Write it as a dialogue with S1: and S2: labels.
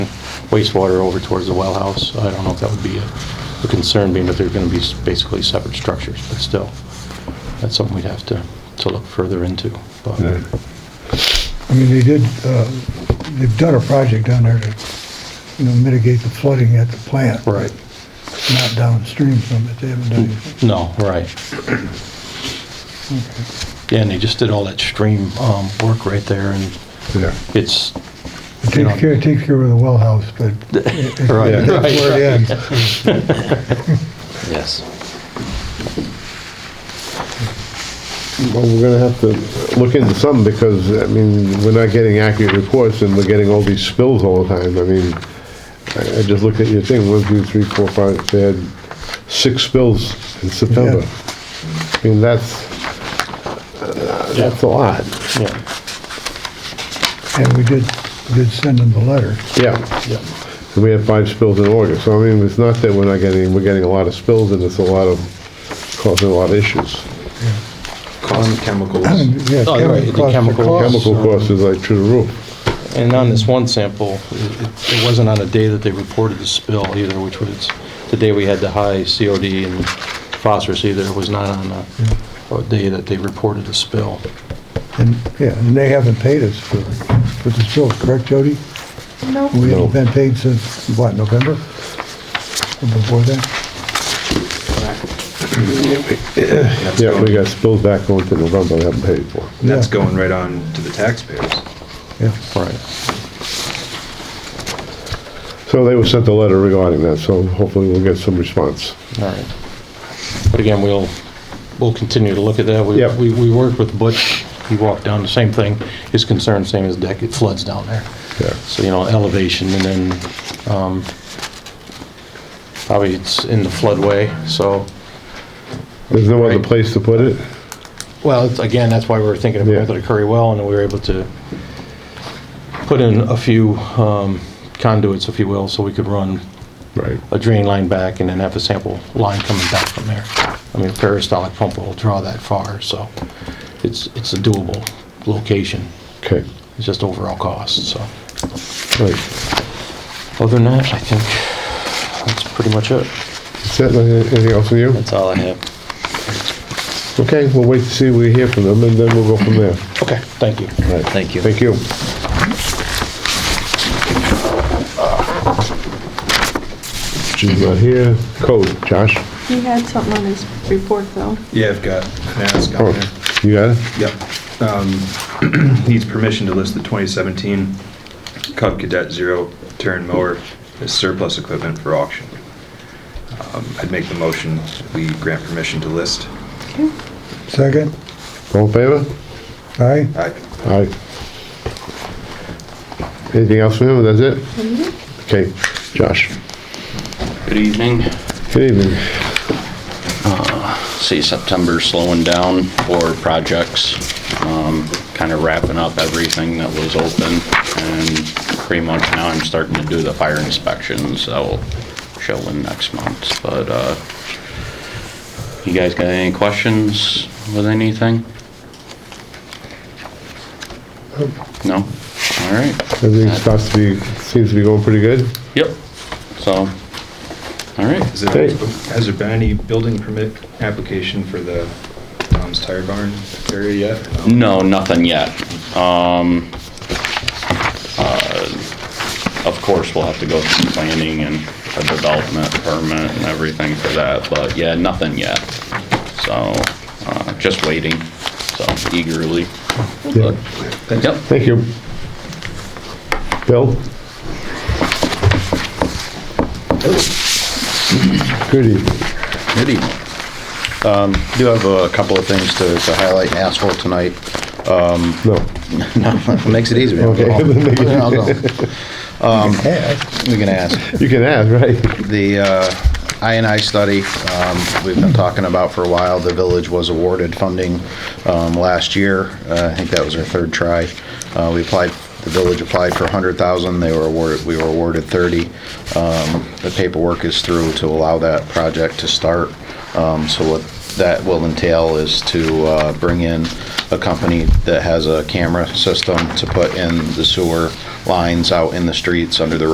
S1: wastewater over towards the well house. I don't know if that would be a a concern, being that they're going to be s- basically separate structures, but still, that's something we'd have to, to look further into. But
S2: I mean, they did, uh, they've done a project down there to, you know, mitigate the flooding at the plant.
S1: Right.
S2: Not downstream from it, they haven't done anything.
S1: No, right. Yeah, and they just did all that stream um, work right there, and
S3: Yeah.
S1: it's,
S2: It
S1: You know-
S2: takes care, it takes care of the well house, but it- it-
S1: Right,
S2: that's
S1: right,
S2: where it ends.
S4: Yes.
S3: Well, we're gonna have to look into something because, I mean, we're not getting accurate reports and we're getting all these spills all the time. I mean, I, I just looked at your thing, one, two, three, four, five, they had six spills in September. I mean, that's, uh,
S1: Yeah.
S3: that's a lot.
S1: yeah,
S2: And we did, did send them the letter.
S3: Yeah.
S1: yeah,
S3: And we had five spills in August. So I mean, it's not that we're not getting, we're getting a lot of spills and it's a lot of, causing a lot of issues.
S4: Cost of chemicals.
S2: Yeah,
S1: Oh, right, the
S2: chemical costs are
S1: chemical-
S2: costs.
S3: Chemical costs is like through the roof.
S1: And on this one sample, it- it it wasn't on a day that they reported the spill either, which was the day we had the high COD and phosphorus either. It was not on a- a day that they reported the spill.
S2: And, yeah, and they haven't paid us for, for the spill, correct, Jody? No. We
S3: No.
S2: haven't been paid since, what, November? Or Before that?
S4: That's
S3: Yeah, we
S4: going-
S3: got spills back going to November, we haven't paid for.
S4: That's
S2: Yeah,
S4: going right on to the taxpayers.
S2: Yeah,
S1: Right.
S3: So they were sent a letter regarding that, so hopefully we'll get some response.
S1: All right. But again, we'll, we'll continue to look at that. We-
S3: Yeah.
S1: We, we worked with Butch, he walked down, the same thing, his concern, same as deck, it floods down there.
S3: Yeah.
S1: So, you know, elevation and then, um, probably it's in the floodway, so,
S3: There's no other place to put it?
S1: well, it's- again, that's why we were thinking of
S3: Yeah.
S1: going to the Curry Well and then we were able to put in a few um, conduits, if you will, so we could run
S3: Right.
S1: a drain line back and then have a sample line coming back from there. I mean, a peristyle pump will draw that far, so it's, it's a doable location.
S3: Okay,
S1: It's just overall cost, so.
S3: right.
S1: Other than that, I think that's pretty much it.
S3: Is that anything else on you?
S4: That's all I have.
S3: Okay, we'll wait to see, we hear from them, and then we'll go from there.
S1: Okay, thank you.
S3: Right.
S4: Thank you.
S3: Thank you. She's not here. Code, Josh?
S5: He had something on his report, though.
S4: Yeah, I've got an ask on there.
S3: Oh, you got it?
S4: Yep. Um, Needs permission to list the 2017 Cub Cadet Zero Turn Mower as surplus equipment for auction. Um, I'd make the motion, that we grant permission to list.
S2: second,
S3: All in favor?
S2: aye?
S4: Aye.
S3: Aye. Anything else from him? That's it? Okay, Josh.
S6: Good evening.
S3: Good evening.
S6: See September slowing down for projects, kind of wrapping up everything that was open. And pretty much now I'm starting to do the fire inspections. that will show in next month. But uh, you guys got any questions with anything? No? All right.
S3: Everything starts to be, seems to be going pretty good.
S6: Yep. So, all right.
S4: Is there-
S3: Great.
S4: Has there been any building permit application for the Tom's Tire Barn area yet? No.
S6: No, nothing yet. Um, uh, Of course, we'll have to go through planning and a development permit and everything for that, but yeah, nothing yet. So, uh, just waiting, so eagerly.
S3: Yeah.
S6: Yep.
S3: Thank you. Bill? Good evening.
S7: Good evening. Um, Do have a couple of things to to highlight and ask for tonight.
S3: No.
S7: No, Makes it easier. I'll go
S3: Okay.
S7: home. I'll go home.
S2: Aye.
S7: Um, We can ask.
S3: You can ask, right?
S7: The uh, INI study, um, we've been talking about for a while, the village was awarded funding um, last year. Uh, I think that was our third try. Uh, We applied, the village applied for 100,000, they were awarded, we were awarded 30. Um, The paperwork is through to allow that project to start. Um, So what that will entail is to uh, bring in a company that has a camera system to put in the sewer lines out in the streets under the